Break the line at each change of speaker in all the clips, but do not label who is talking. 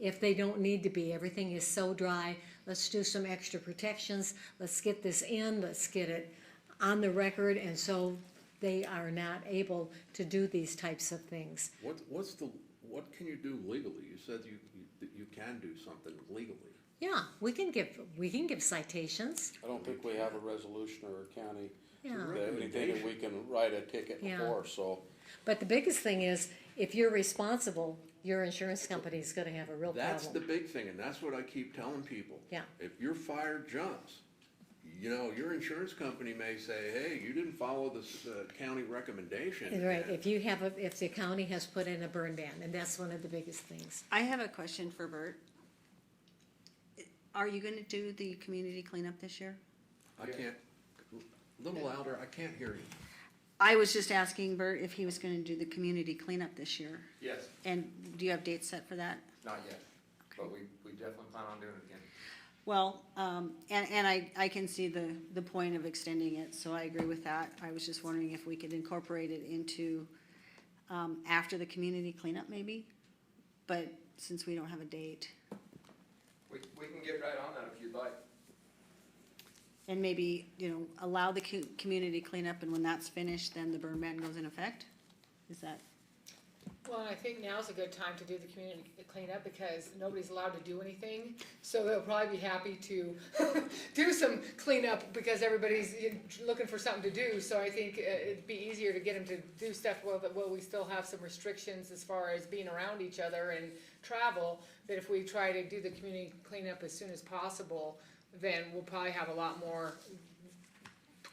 if they don't need to be. Everything is so dry. Let's do some extra protections. Let's get this in. Let's get it on the record. And so they are not able to do these types of things.
What, what's the, what can you do legally? You said you, you- that you can do something legally.
Yeah, we can give, we can give citations.
I don't think we have a resolution or a county,
Yeah.
that anything that we can write a ticket
Yeah.
for, so.
But the biggest thing is, if you're responsible, your insurance company is gonna have a real
That's the
problem.
big thing, and that's what I keep telling people.
Yeah.
If your fire jumps, you know, your insurance company may say, hey, you didn't follow this, uh, county recommendation.
Right,
and
if you have, a if the county has put in a burn ban, and that's one of the biggest things.
I have a question for Bert. Are you gonna do the community cleanup this year?
I can't, a little louder, I can't hear you.
I was just asking Bert if he was gonna do the community cleanup this year.
Yes,
And do you have dates set for that?
not yet, but we, we definitely plan on doing it again.
Well, um, and, and I, I can see the, the point of extending it, so I agree with that. I was just wondering if we could incorporate it into, um, after the community cleanup maybe? But since we don't have a date,
We, we can get right on that if you'd like.
and maybe, you know, allow the co- community cleanup, and when that's finished, then the burn ban goes in effect? Is that?
Well, and I think now's a good time to do the community cleanup because nobody's allowed to do anything. So they'll probably be happy to do some cleanup because everybody's you know, looking for something to do. So I think uh, it'd be easier to get them to do stuff while, while we still have some restrictions as far as being around each other and travel. That if we try to do the community cleanup as soon as possible, then we'll probably have a lot more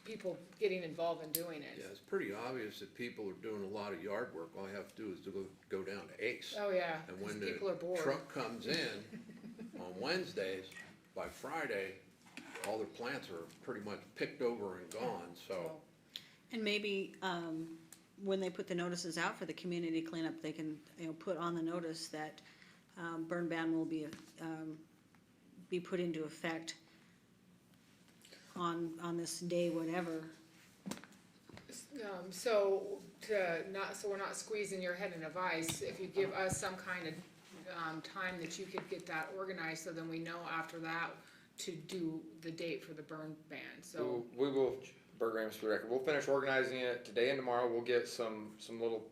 people getting involved in doing it.
Yeah, it's pretty obvious that people are doing a lot of yard work. All you have to do is to go, go down to Ace.
Oh, yeah,
And
'cause
when
people are
the
bored.
truck comes in on Wednesdays, by Friday, all their plants are pretty much picked over and gone, so.
And maybe, um, when they put the notices out for the community cleanup, they can, you know, put on the notice that, um, burn ban will be, um, be put into effect on, on this day, whatever.
Um, so to not, so we're not squeezing your head in a vice, if you give us some kind of, um, time that you could get that organized, so then we know after that to do the date for the burn ban, so.
We will, Bert Rams for the record, we'll finish organizing it today and tomorrow, we'll get some, some little,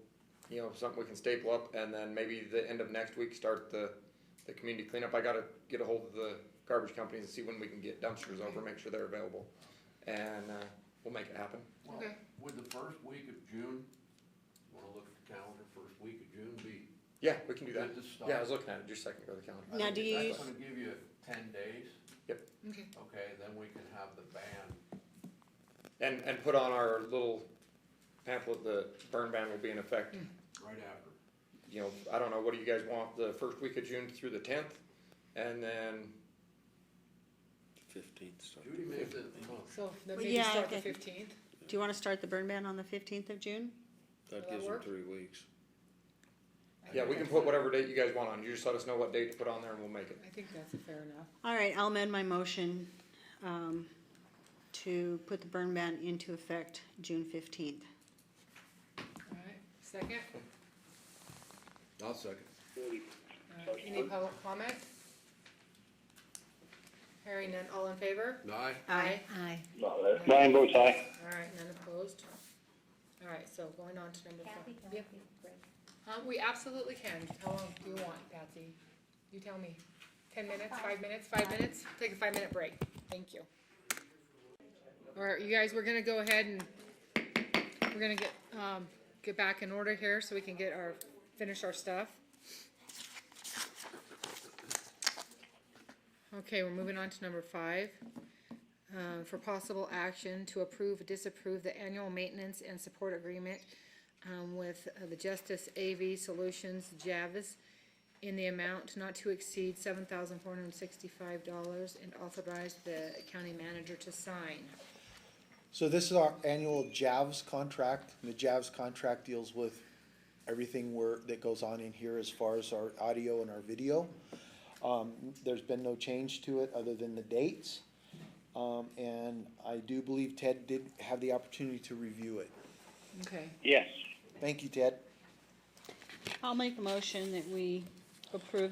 you know, something we can staple up, and then maybe the end of next week, start the, the community cleanup, I gotta get a hold of the garbage companies and see when we can get dumpsters over, make sure they're available, and, uh, we'll make it happen.
Okay.
Would the first week of June, wanna look at the calendar, first week of June be?
Yeah, we can do that,
Good to start.
yeah, I was looking at it just a second ago, the calendar.
Now, do you use-
That's gonna give you ten days,
Okay,
okay, then we can have the ban.
And, and put on our little pamphlet, the burn ban will be in effect,
right after.
you know, I don't know, what do you guys want, the first week of June through the tenth? And then,
Fifteenth start.
Judy made the, oh,
so then
Well,
maybe
yeah,
start the
okay.
fifteenth,
Do you wanna start the burn ban on the fifteenth of June?
Will that
That gives them
work?
three weeks.
yeah, we can put whatever date you guys want on, you just let us know what date to put on there and we'll make it.
I think that's fair enough.
All right, I'll amend my motion, um, to put the burn ban into effect June fifteenth.
Alright, second,
I'll second.
Alright, uh, any public comment? Hearing none, all in favor?
Aye,
Aye.
Aye.
Nine votes aye.
Alright, none opposed. Alright, so going on to number five.
Kathy,
Yeah.
Kathy, Greg.
Uh, we absolutely can. How long do you want, Patsy? You tell me. Ten minutes, five minutes, five minutes? Take a five-minute break. Thank you. All right, you guys, we're gonna go ahead and we're gonna get, um, get back in order here so we can get our, finish our stuff. Okay, we're moving on to number five. Um, for possible action to approve, disapprove the annual maintenance and support agreement um, with uh, the Justice AV Solutions Javis in the amount not to exceed seven thousand four hundred and sixty-five dollars and authorize the county manager to sign.
So this is our annual JAVS contract, and the JAVS contract deals with everything where, that goes on in here as far as our audio and our video. Um, there's been no change to it other than the dates. Um, and I do believe Ted did have the opportunity to review it.
Okay.
Thank you, Ted.
I'll make a motion that we approve the